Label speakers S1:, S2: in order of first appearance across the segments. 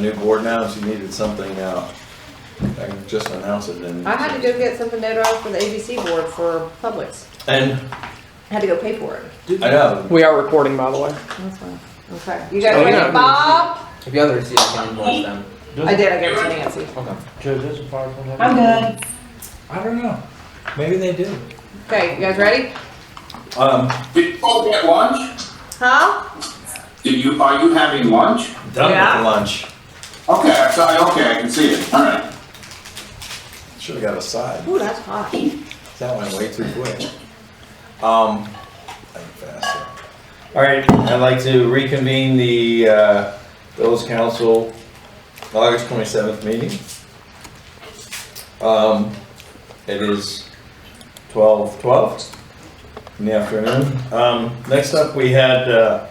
S1: New board now, if you needed something out, I can just announce it and.
S2: I had to go get something notarized for the ABC board for Publix.
S1: And,
S2: I had to go pay for it.
S1: I know,
S3: We are recording, by the way.
S2: That's fine. Okay. You guys
S4: Oh,
S2: ready,
S4: yeah.
S2: Bob?
S4: If you have the receipt, I can bless them.
S2: I did. I gave it to Nancy.
S4: Okay.
S5: Joe, does a PowerPoint have?
S6: I'm good.
S5: I don't know. Maybe they do.
S2: Okay, you guys ready?
S1: um,
S7: Did you all get lunch?
S2: Huh?
S7: Did you, are you having lunch?
S1: done
S2: Yeah.
S1: with lunch,
S7: Okay, I saw, okay, I can see it, all right.
S1: should've got a side,
S2: Ooh, that's hot.
S1: that went way too quick. Um, I can fast it. all right, I'd like to reconvene the, uh, Village Council August twenty-seventh meeting. Um, it is twelve twelve in the afternoon. Um, next up, we had, uh,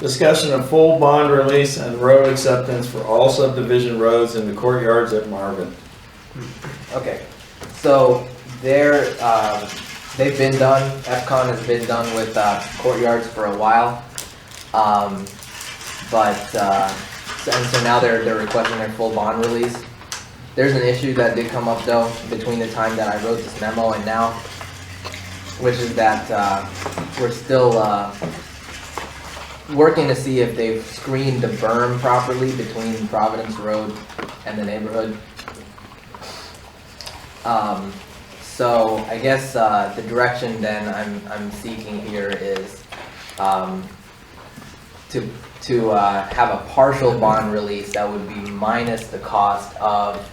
S1: discussion of full bond release and road acceptance for all subdivision roads in the courtyards at Marvin.
S4: Okay. So they're um, they've been done. FCON has been done with uh, courtyards for a while, um, but uh, so- and so now they're they're requesting their full bond release. There's an issue that did come up though between the time that I wrote this memo and now, which is that uh, we're still uh, working to see if they've screened the berm properly between Providence Road and the neighborhood. Um, so I guess, uh, the direction then I'm, I'm seeking here is, um, to, to, uh, have a partial bond release that would be minus the cost of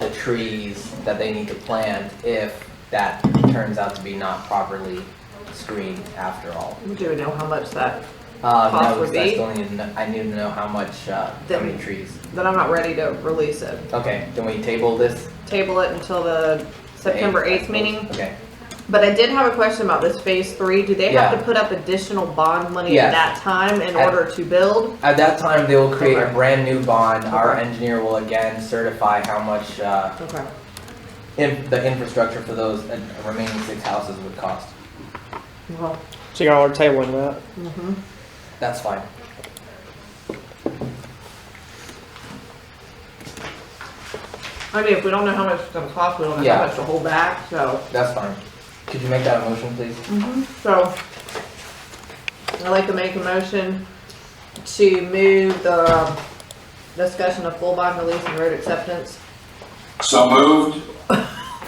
S4: the trees that they need to plant if that turns out to be not properly screened after all.
S2: Do we know how much that?
S4: Um,
S2: Cost
S4: that
S2: would
S4: was, I
S2: be?
S4: still need to, kn- I need to know how much, uh, how
S2: That
S4: many
S2: we-
S4: trees.
S2: That I'm not ready to release it.
S4: Okay, then we table this?
S2: Table it until the September eighth meeting.
S4: Okay,
S2: But I did have a question about this phase three. Do they have
S4: Yeah.
S2: to put up additional bond money at
S4: Yes.
S2: that time in
S4: At-
S2: order to build?
S4: At that time, they will create a
S2: Okay.
S4: brand new bond. Our
S2: Okay.
S4: engineer will again certify how much uh,
S2: Okay.
S4: in- the infrastructure for those uh, remaining six houses would cost.
S2: Well,
S3: So y'all are tabling that.
S2: mhm.
S4: That's fine.
S2: I mean, if we don't know how much it's gonna cost, we don't know
S4: Yeah.
S2: how much to hold back, so.
S4: That's fine. Could you make that a motion, please?
S2: Mm. So, I'd like to make a motion to move the discussion of full bond release and road acceptance
S7: So moved,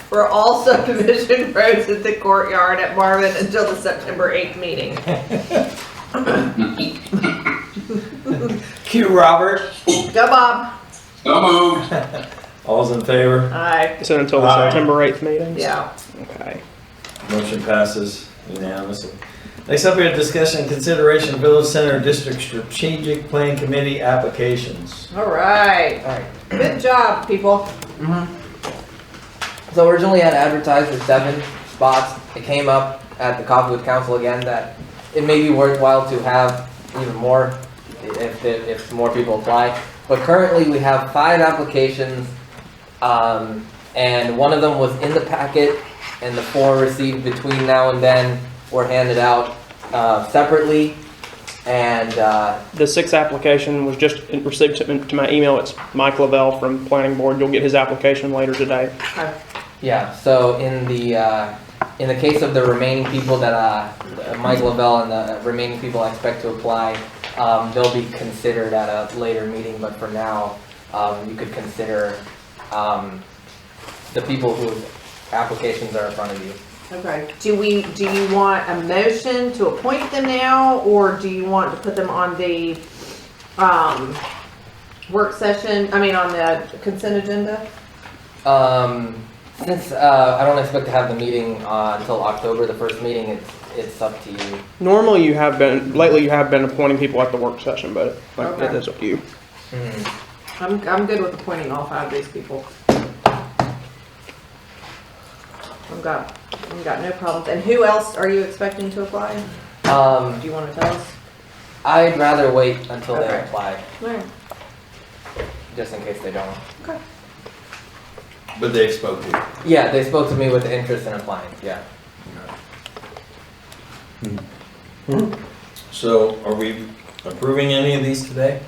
S2: for all subdivision roads at the courtyard at Marvin until the September 8th meeting.
S5: Cue Robert.
S2: Go Bob.
S7: so moved,
S1: All's in favor?
S2: Aye.
S3: It's until the
S1: Aye.
S3: September 8th meeting.
S2: Yeah.
S3: Okay.
S1: Motion passes unanimously. Next up, we have discussion and consideration Village Center District Strategic Plan Committee applications.
S2: All right.
S4: All right.
S2: Good job, people.
S4: Mm-hmm. So originally had advertised for seven spots. It came up at the Cottonwood Council again that it may be worthwhile to have even more if, if, if more people apply. But currently, we have five applications, um, and one of them was in the packet, and the four received between now and then were handed out, uh, separately. And, uh,
S3: The sixth application was just received to to my email. It's Mike Lavelle from Planning Board. You'll get his application later today.
S2: Okay.
S4: Yeah, so in the, uh, in the case of the remaining people that, uh, Mike Lavelle and the uh, remaining people I expect to apply, um, they'll be considered at a later meeting, but for now, um, you could consider, um, the people whose applications are in front of you.
S2: Okay. Do we, do you want a motion to appoint them now, or do you want to put them on the, um, work session, I mean, on the consent agenda?
S4: Um, since, uh, I don't expect to have the meeting, uh, until October, the first meeting, it's, it's up to you.
S3: Normally you have been, lately you have been appointing people at the work session, but like, it
S2: Okay.
S3: is up to you.
S4: Hmm,
S2: I'm, I'm good with appointing all five of these people. I've got, I've got no problems. And who else are you expecting to apply?
S4: Um,
S2: Do you wanna tell us?
S4: I'd rather wait until they
S2: Okay.
S4: apply,
S2: Alright.
S4: just in case they don't.
S1: But they spoke to you.
S4: Yeah, they spoke to me with interest in applying, yeah.
S1: So are we approving any of these today?